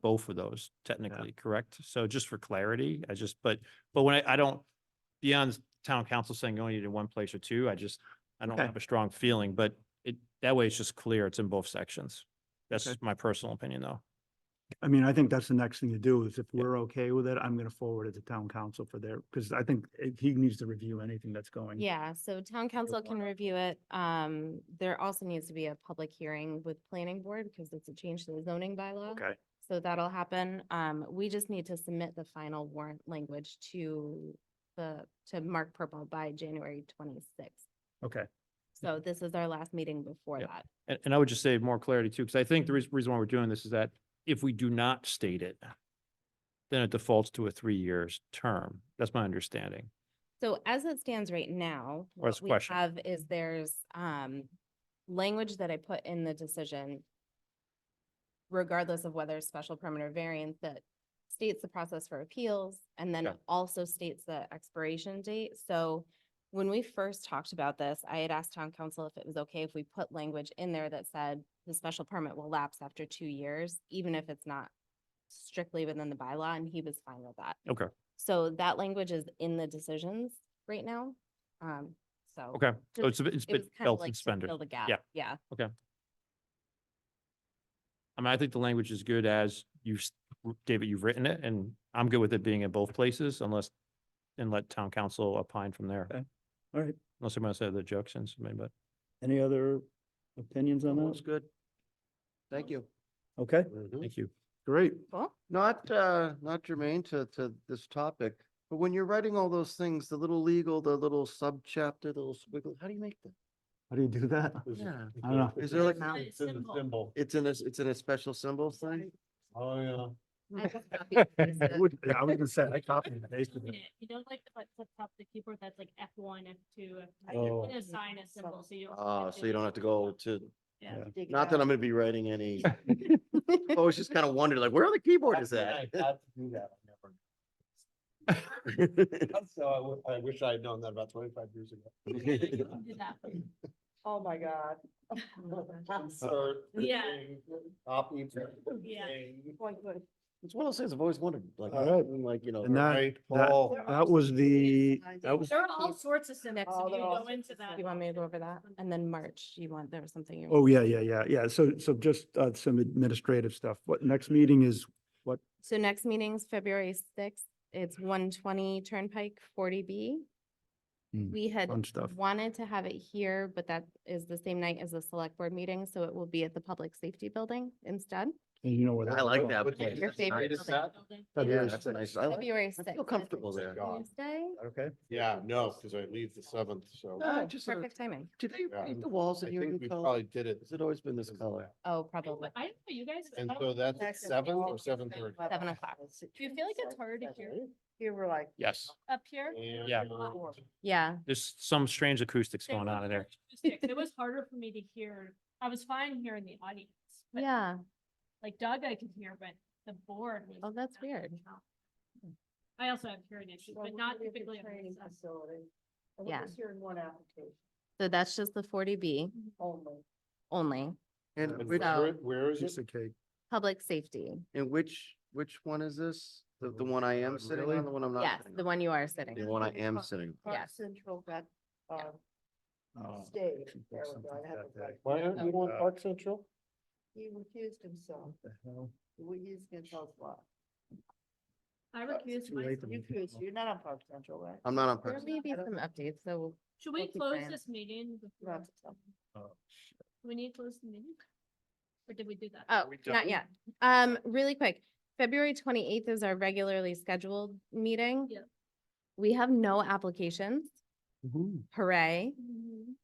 both of those technically, correct? So just for clarity, I just, but, but when I, I don't, beyond town council saying you only need it in one place or two, I just, I don't Okay. have a strong feeling, but it, that way it's just clear, it's in both sections. That's Okay. my personal opinion, though. I mean, I think that's the next thing to do is if we're okay with it, I'm gonna forward it to town council for their, because I think it- he needs to review anything that's going. Yeah, so town council can warrant. review it. Um, there also needs to be a public hearing with planning board because it's a change to the zoning bylaw. Okay, So that'll happen. Um, we just need to submit the final warrant language to the, to Mark Purple by January twenty-sixth. okay. So this is our last meeting before Yeah. that. And, and I would just say more clarity too, because I think Mm-hmm. the reas- reason why we're doing this is that if we do not state it, then it defaults to a three years term. That's my understanding. So as it stands right now, Or it's what we question. have is there's, um, language that I put in the decision regardless of whether it's special permit or variance that states the process for appeals and then Okay. also states the expiration date. So when we first talked about this, I had asked town council if it was okay if we put language in there that said the special permit will lapse after two years, even if it's not strictly within the bylaw, and he was fine with that. Okay. So that language is in the decisions right now. Um, so. Okay, so it's, Just- a bit- it's It was been kind of belt like and to suspenders. fill the gap. Yeah. Yeah. I mean, I think the language is good as you've, s- w- David, you've written it, and I'm good with it being in both places unless, and let town council opine from there. Okay. All right. Unless someone said the jokes and something, but. Any other opinions on That's that? good. Thank you. Okay, Mm-hmm. Thank you. great. Cool. Not, uh, not germane to, to this topic, but when you're writing all those things, the little legal, the little subchapter, the little squiggle, how do you make that? How do you do that? Yeah. I don't know. Is there like, Mount. It's in the symbol. it's in a, it's in a special symbol thing? Oh, yeah. I just copy and paste I it. would- I was gonna say, I copied and pasted it. You don't like the buttons up top of the keyboard, that's like F one, F two, F Oh. three, assign a symbol, so you. don't Uh, so you don't have to go to, Yeah. Yeah. Dig it not that out. I'm gonna be writing any, I always just kind of wondered like, where on the keyboard is that? Actually, I had to do that, I never- So I, w- I wish I had known that about twenty-five years ago. Do that. Oh, my God. Insert Yeah. thing, Copy. Yeah. thing. Boy, good. It's one of those things I've always wondered, like, All right. like, you know. And that- right, that- Paul. That was the, that was, There are all sorts of symbols, Oh, if you they're all go into sorts of that. You want me to go over that? And then March, you want, there was something you. oh, yeah, yeah, yeah, yeah. So, so just uh, some administrative stuff. What, next meeting is, So next meeting's February sixth. It's one twenty Turnpike forty B. Hmm, We had fun stuff. wanted to have it here, but that is the same night as the select board meeting, so it will be at the public safety building instead. and you know where. I like that. What place. day Your That's favorite nice. building. Yeah, February that's a nice. I like- February I sixth. feel comfortable there. Tuesday, Okay. Yeah, no, because I leave the seventh, so Ah, just sort of- Oh, perfect timing. Did they Yeah. paint the walls I in your think new we color? probably did it. Has it always been this color? Oh, I don't probably. know, you guys. And I so don't- that's at seven or seven thirty. Seven o'clock. Do you feel like it's hard to hear Here we're like. Yes, up here? Yeah. Yeah, there's some strange acoustics There going were on in there. acoustics. It was harder for me to hear. I was fine here in the audience. but, yeah. Like Doug, I could hear, but the board was. Oh, that's not really weird. helpful. I also have hearing issues, Well, but we not needed the typically. on Training this side. facility. And Yeah. we're just hearing one application So that's just the forty B only. only, And And which, So- where- Where is Piece it? of cake. public safety. and which, which one is this? The, the one I am sitting Really? on, the one I'm not? Yes, sitting the on? one you are sitting. The on. one I am sitting. Park Yes. Central got, Yeah. um, Oh, stayed. should book There we something go. I have that it day. right. Why aren't you on Uh, Park Central? He refused himself. What the hell? We- He's gonna tell us why. I recuse Oh, too late myself. to Um, You meet people. refused. You're not on Park Central, right? I'm not on There Park. may be I don't- some updates, so Should we Okay, close Brian. this meeting? You don't before- have to tell me. Oh, shit. Do We need to close the meeting? Or did we do that? Oh, we not done? yet. Um, really quick, February twenty-eighth is our regularly scheduled meeting. Yep. We have no applications. Hooray. Mhm.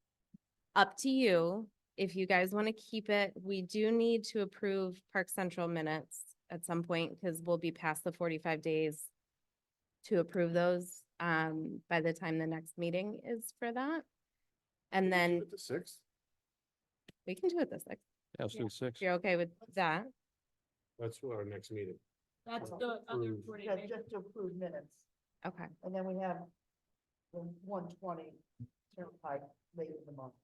Up to you. If you guys want to keep it, we do need to approve Park Central minutes at some point because we'll be past the forty-five days to approve those, um, by the time the next meeting is for that. And then The sixth? we can do it this, like, Yeah, let's do Yeah. the six. if you're okay with that. That's our next meeting. That's the other Approve. forty. Yeah, Just to approve minutes. Okay. And then we have the one twenty turnpike late in the month.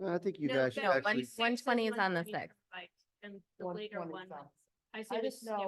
No, I think you No, guys should no, actually, one- 120 is on the 120 sixth. Like, And the later 120 one, sounds- I say I this, just know